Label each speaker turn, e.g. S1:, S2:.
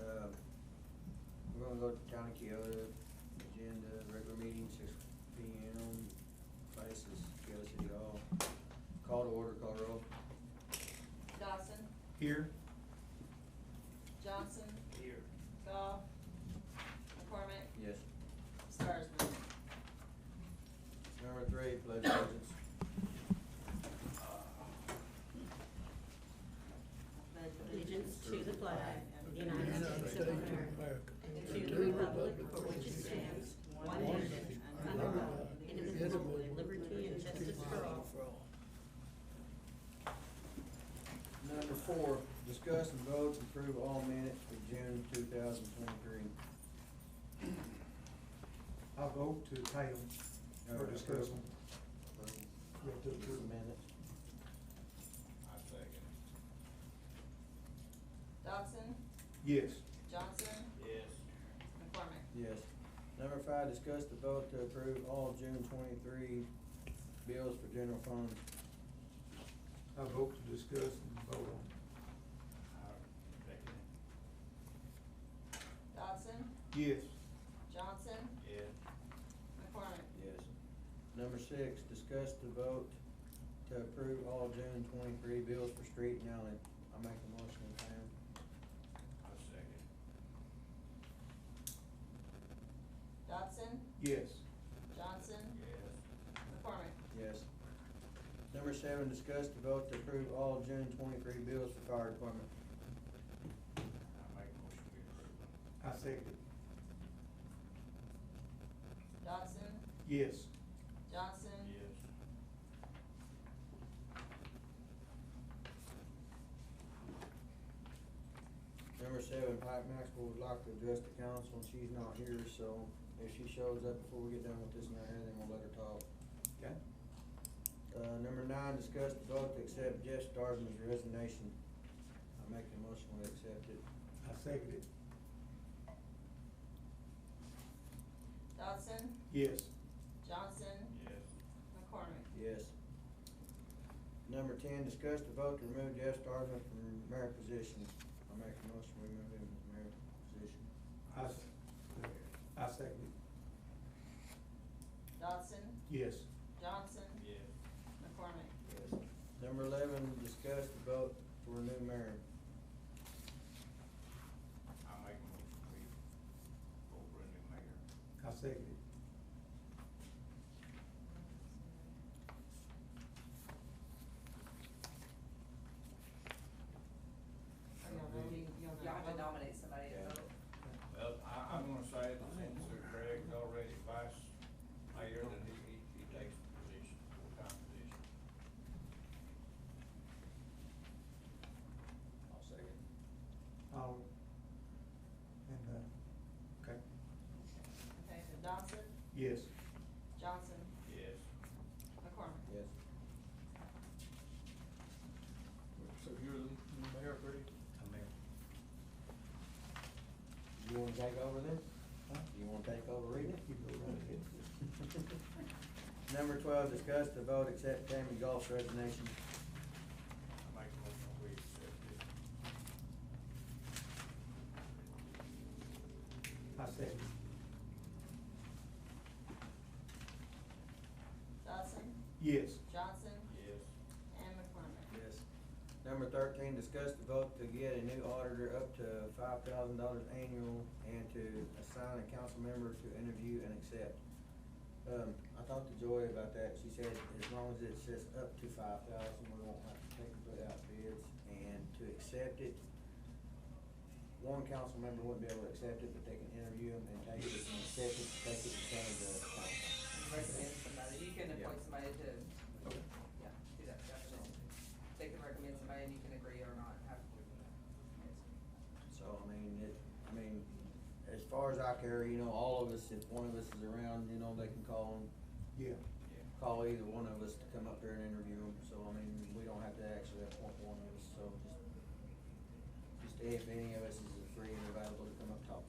S1: Uh, gonna go to Town of Kyoto, agenda, regular meeting, six P M, places, Kyoto City Hall. Call to order, call roll.
S2: Dawson,
S3: Here.
S2: Johnson,
S3: Here.
S2: Goff, McCormick,
S1: Yes.
S2: Starsman.
S1: Number three, pledge allegiance.
S4: Allegiance to the flag of the United States of America, and to the republic for which it stands, one nation, under God, indivisible, with liberty and justice for all.
S1: Number four, discuss and vote to approve all minutes for June two thousand twenty-three.
S3: I vote to table for discussion.
S1: Yeah, to approve the minutes.
S5: I second.
S2: Dawson,
S3: Yes.
S2: Johnson,
S5: Yes.
S2: McCormick.
S1: Yes. Number five, discuss the vote to approve all June twenty-three bills for general fund.
S3: I vote to discuss and vote on.
S5: I second.
S2: Dawson,
S3: Yes.
S2: Johnson,
S5: Yes.
S2: McCormick.
S1: Yes. Number six, discuss the vote to approve all June twenty-three bills for street and alley. I make a motion, we pay 'em.
S5: I second.
S2: Dawson,
S3: Yes.
S2: Johnson,
S5: Yes.
S2: McCormick.
S1: Yes. Number seven, discuss the vote to approve all June twenty-three bills for fire department.
S5: I make a motion to approve them.
S3: I second.
S2: Dawson,
S3: Yes.
S2: Johnson,
S5: Yes.
S1: Number seven, Pike Maxwell would like to address the council, and she's not here, so if she shows up before we get done with this and that, then we'll let her talk.
S3: Okay.
S1: Uh, number nine, discuss the vote to accept Jeff Starzman's resignation. I make a motion, we accept it.
S3: I second it.
S2: Dawson,
S3: Yes.
S2: Johnson,
S5: Yes.
S2: McCormick.
S1: Yes. Number ten, discuss the vote to remove Jeff Starzman from mayor position. I make a motion, we remove him from mayor position.
S3: I, s- I second
S2: Dawson,
S3: it. Yes.
S2: Johnson,
S5: Yes.
S2: McCormick.
S1: Yes. Number eleven, discuss the vote for a new mayor.
S5: I make a motion to approve. Over in the mayor.
S3: I second it.
S2: Are y'all voting? Y'all
S6: Y'all have to
S2: vote?
S6: nominate somebody to
S1: Yeah.
S6: vote.
S5: Well, I, I'm gonna say that since Greg's already vice mayor, that he, he- he takes the position, full-time position. I'll second.
S3: I'll, and, uh, okay.
S2: Okay, so Dawson,
S3: Yes.
S2: Johnson,
S5: Yes.
S2: McCormick.
S1: Yes.
S3: So you're the mayor, Greg? I'm mayor.
S1: You wanna take over then?
S3: Huh?
S1: You wanna take over reading
S3: You go right ahead.
S1: it? Number twelve, discuss the vote accept Tammy Golf's resignation.
S5: I make a motion we accept it.
S3: I second.
S2: Dawson,
S3: Yes.
S2: Johnson,
S5: Yes.
S2: and McCormick.
S1: Yes. Number thirteen, discuss the vote to get a new auditor up to five thousand dollars annual and to assign a council member to interview and accept. Um, I talked to Joy about that, she said as long as it says up to five thousand, we won't have to take and put out bids, and to accept it, one council member wouldn't be able to accept it, but they can interview them and take it and accept it, take it to Canada.
S6: Recommend somebody. You can
S1: Yeah.
S6: appoint somebody to,
S3: Okay.
S6: yeah, do that, definitely. They can recommend somebody and you can agree or not, have to.
S1: So, I mean, it, I mean, as far as I care, you know, all of us, if one of us is around, you know, they can call and
S3: Yeah.
S5: Yeah.
S1: call either one of us to come up there and interview them, so, I mean, we don't have to actually appoint one of us, so just, just if any of us is free and available to come up talk to